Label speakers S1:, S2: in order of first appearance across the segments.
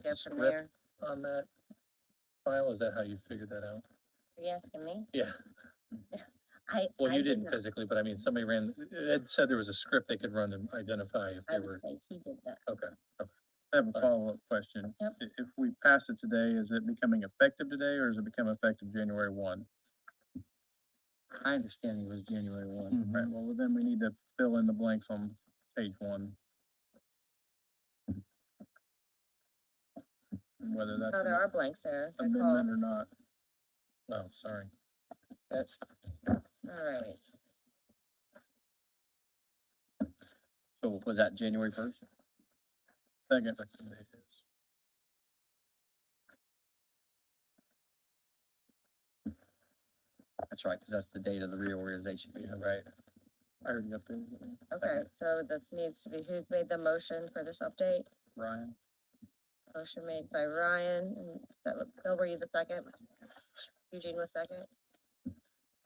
S1: That
S2: go from
S1: script
S2: there.
S1: on that file, is that how you figured that out?
S2: Are you asking me?
S1: Yeah,
S2: I.
S1: well,
S2: I
S1: you
S2: did
S1: didn't
S2: not.
S1: physically, but I mean, somebody ran, Ed said there was a script they could run to identify if
S2: I
S1: they
S2: would
S1: were,
S2: say he did that.
S1: okay.
S3: I have a
S1: Fine.
S3: follow-up question.
S2: Yep.
S3: I- If we pass it today, is it becoming effective today or does it become effective January one?
S4: My understanding was January one.
S1: Mm-hmm.
S3: Right, well, then we need to fill in the blanks on page one. And Whether that's
S2: No, Oh, there are blanks there.
S3: an
S2: They're called,
S3: amendment or not.
S1: Oh, sorry.
S4: That's,
S2: all right.
S4: so was that January first?
S3: Second,
S4: That's right, because that's the date of the reorganization meeting, right? I already updated it.
S2: Okay, so this needs to be, who's made the motion for this update?
S4: Ryan,
S2: Motion made by Ryan, and so, Bill, were you the second? Eugene was second?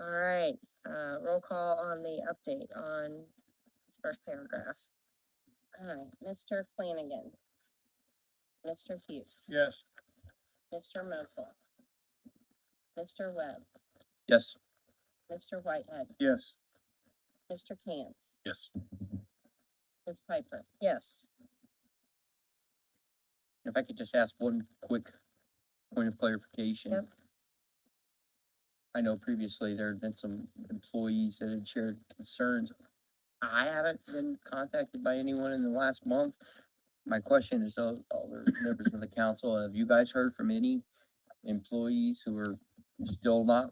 S2: All right, uh, roll call on the update on this first paragraph. All right, Mr. Flanagan. Mr. Hughes.
S3: yes.
S2: Mr. Mokel. Mr. Webb.
S4: yes,
S2: Mr. Whitehead.
S3: Yes,
S2: Mr. Cantz.
S1: Yes,
S2: Ms. Piper. Yes.
S4: if I could just ask one quick point of clarification.
S2: Yep.
S4: I know previously there had been some employees that had shared concerns. I haven't been contacted by anyone in the last month. My question is, though, all the members of the council, have you guys heard from any employees who are still not,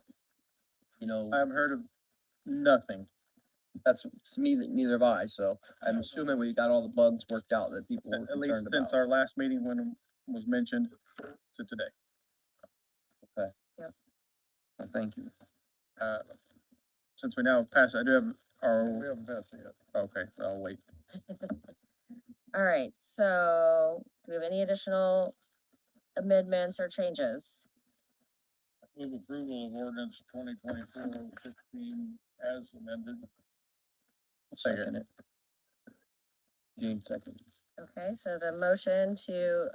S4: you know?
S3: I've heard of nothing.
S4: That's, to me, that neither have I, so I'm assuming we got all the bugs worked out that people
S3: At
S4: were
S3: at least
S4: concerned
S3: since
S4: about.
S3: our last meeting when it was mentioned to today.
S4: Well, Thank you.
S3: Uh, Since we now passed, I do have our. We haven't passed it yet. Okay, I'll wait.
S2: All right, so do we have any additional amendments or changes?
S3: Move approval of ordinance twenty twenty-four oh sixteen as amended.
S4: Second it. James second.
S2: Okay, so the motion to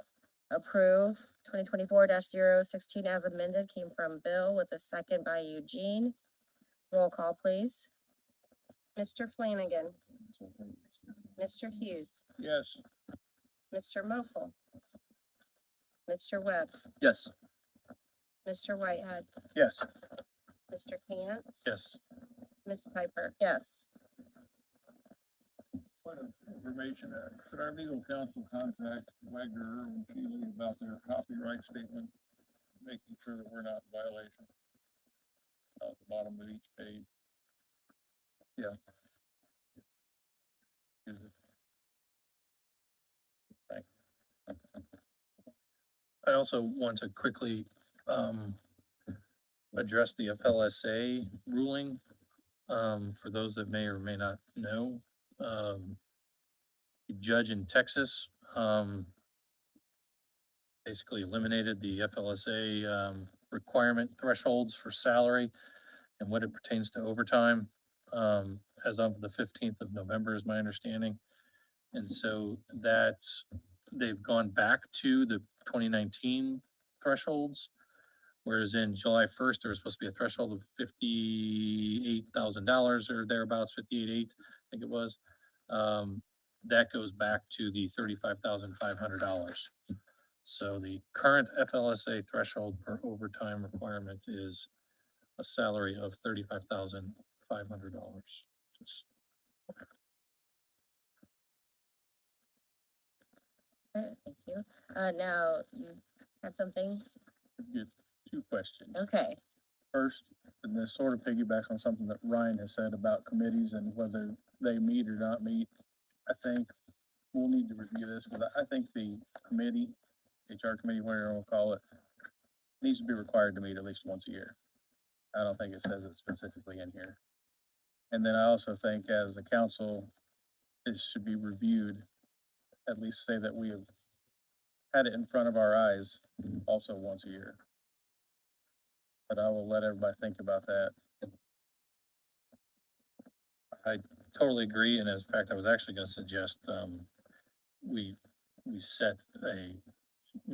S2: approve twenty twenty-four 16 as amended came from Bill with a second by Eugene. Roll call, please. Mr. Flanagan, Mr. Hughes,
S3: Yes.
S2: Mr. Mokel, Mr. Webb,
S4: Yes,
S2: Mr. Whitehead,
S3: Yes.
S2: Mr. Cantz.
S1: yes.
S2: Ms. Piper, yes.
S3: Point of information, uh, could our legal counsel contact Wagner and Keeley about their copyright statement, making sure that we're not in violation? At the bottom of each page. Yeah. Is it-
S1: I also want to quickly, um, address the FLSA ruling. Um, for those that may or may not know, um, the judge in Texas, um, basically eliminated the FLSA, um, requirement thresholds for salary and what it pertains to overtime, um, as of the fifteenth of November is my understanding. And so that's, they've gone back to the twenty nineteen thresholds. Whereas in July first, there was supposed to be a threshold of fifty-eight thousand dollars or thereabouts, fifty-eight eight, I think it was. Um, that goes back to the thirty-five thousand five hundred dollars. So the current FLSA threshold for overtime requirement is a salary of thirty-five thousand five hundred dollars.
S2: Okay, Thank you. Uh, now, you had something?
S3: Two questions.
S2: Okay,
S3: First, and this sort of piggybacks on something that Ryan has said about committees and whether they meet or not meet. I think we'll need to review this, because I think the committee, HR committee, whatever we'll call it, needs to be required to meet at least once a year. I don't think it says it specifically in here. And then I also think as a council, it should be reviewed, at least say that we have had it in front of our eyes also once a year. But I will let everybody think about that.
S1: Totally agree, and as a fact, I was actually gonna suggest, um, we, we set a